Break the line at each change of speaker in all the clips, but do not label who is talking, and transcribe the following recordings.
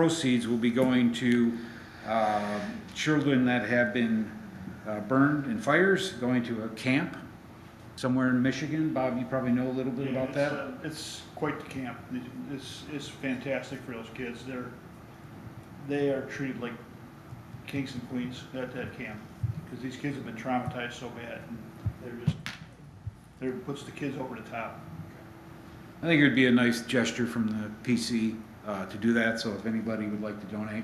proceeds will be going to um, children that have been uh, burned in fires, going to a camp somewhere in Michigan. Bob, you probably know a little bit about
Yeah,
that.
it's, uh, It's quite the camp. It's, it's fantastic for those kids. They're, they are treated like kings and queens at that camp. Because these kids have been traumatized so bad. and They're just, they're, puts the kids over the top.
I think it would be a nice gesture from the PC uh, to do that, so if anybody would like to donate,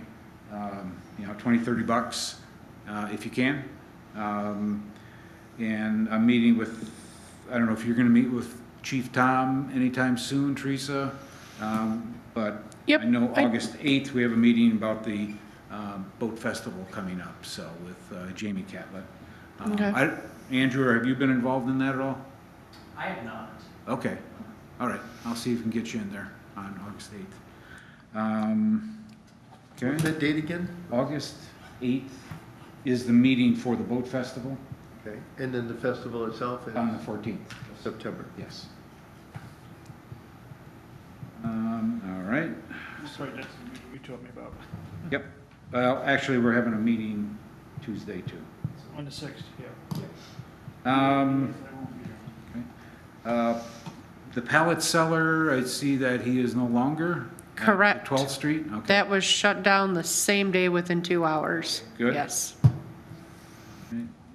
um, you know, 20, 30 bucks, uh, if you can. Um, And I'm meeting with, I don't know if you're going to meet with Chief Tom anytime soon, Teresa, um, but
Yep,
I know
I-
August 8th, we have a meeting about the um, Boat Festival coming up, so with uh, Jamie Catlett. Um,
Okay.
I- Andrew, have you been involved in that at all?
I have not.
Okay, all right, I'll see if we can get you in there on August 8th. Um,
What's
Okay,
that date again?
August 8th is the meeting for the boat festival
Okay, and then the festival itself is
on the 14th,
September.
yes. Um, All right,
That's right, that's what you told me about.
yep, well, actually, we're having a meeting Tuesday too.
On the sixth, yeah.
Um,
I won't be there.
uh, The pallet seller, I see that he is no longer. at
Correct.
12th Street, okay.
That was shut down the same day within two hours.
Good.
Yes.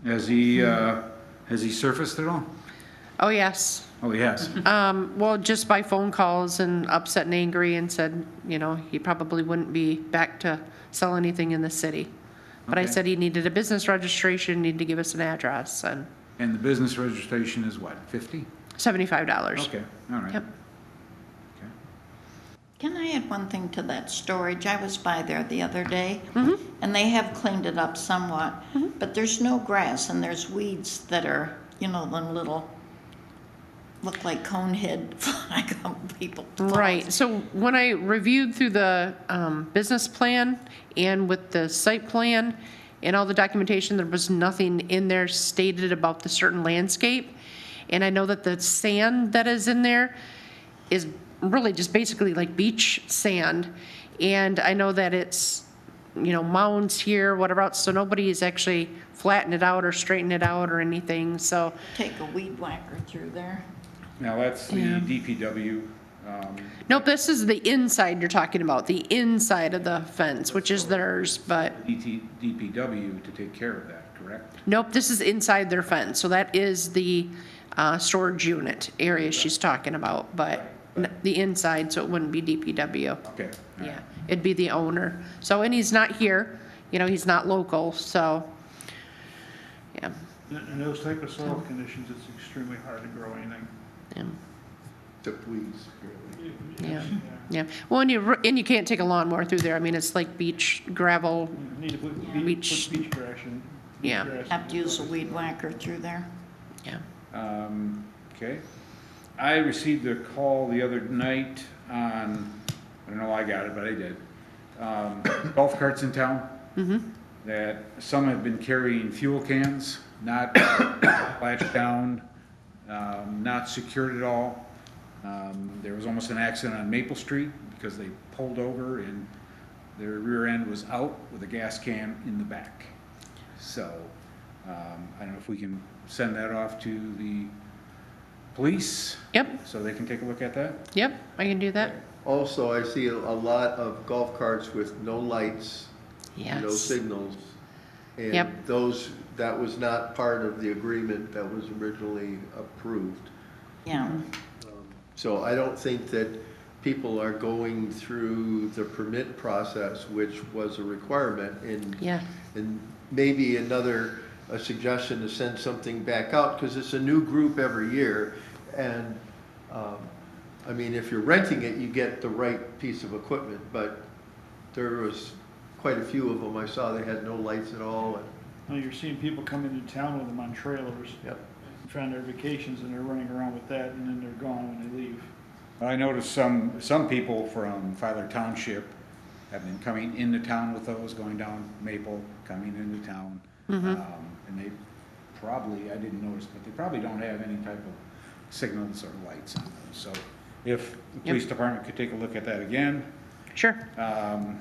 Has he, uh, has he surfaced at all?
Oh, yes.
Oh, he has.
Um, well, just by phone calls and upset and angry and said, you know, he probably wouldn't be back to sell anything in the city. But I
Okay.
said he needed a business registration, needed to give us an address and
And the business registration is what, 50?
seventy-five dollars.
Okay, all right.
Yep.
Okay.
Can I add one thing to that storage? I was by there the other day, and they have cleaned it up somewhat, but there's no grass and there's weeds that are, you know, them little, look like cone head, like people.
Right, so when I reviewed through the, um, business plan and with the site plan and all the documentation, there was nothing in there stated about the certain landscape. And I know that the sand that is in there is really just basically like beach sand. And I know that it's, you know, mounds here, whatever else, so nobody has actually flattened it out or straightened it out or anything, so.
Take a weed whacker through there.
Now, that's the DPW. um,
Nope, this is the inside you're talking about, the inside of the fence, which is theirs, but,
DT DPW to take care of that, correct?
nope, this is inside their fence, so that is the, uh, storage unit area she's talking about, but n- the inside, so it wouldn't be DPW,
Okay. all right.
yeah, it'd be the owner. So, and he's not here, you know, he's not local, so, yeah,
In- In those type of soil conditions, it's extremely hard to grow anything.
yeah,
Except weeds, apparently.
yeah, yeah. Well, and you, r- and you can't take a lawnmower through there, I mean, it's like beach gravel,
Need to put,
Yeah.
be-
Beach-
put beach grass in. beach
Yeah.
grass in.
Have to use a weed whacker through there.
yeah.
Um, Okay. I received a call the other night on, I don't know why I got it, but I did. Um, Golf carts in town. That some have been carrying fuel cans, not latched down, um, not secured at all. Um, There was almost an accident on Maple Street because they pulled over and their rear end was out with a gas can in the back. So, um, I don't know if we can send that off to the police,
Yep,
so they can take a look at that?
yep, I can do that,
Also, I see a a lot of golf carts with no lights,
yes.
no signals. And
Yep.
those, that was not part of the agreement that was originally approved.
Yeah,
So I don't think that people are going through the permit process, which was a requirement in
Yeah,
And maybe another, a suggestion to send something back out, because it's a new group every year. And, um, I mean, if you're renting it, you get the right piece of equipment, but there was quite a few of them I saw that had no lights at all. and-
Now you're seeing people come into town with them on trailers.
Yep.
Trying their vacations and they're running around with that and then they're gone when they leave.
I noticed some, some people from Filer Township have been coming into town with those, going down Maple, coming into town. Um, And they probably, I didn't notice, but they probably don't have any type of signals or lights on them. So if the police department could take a look at that again,
sure.
um,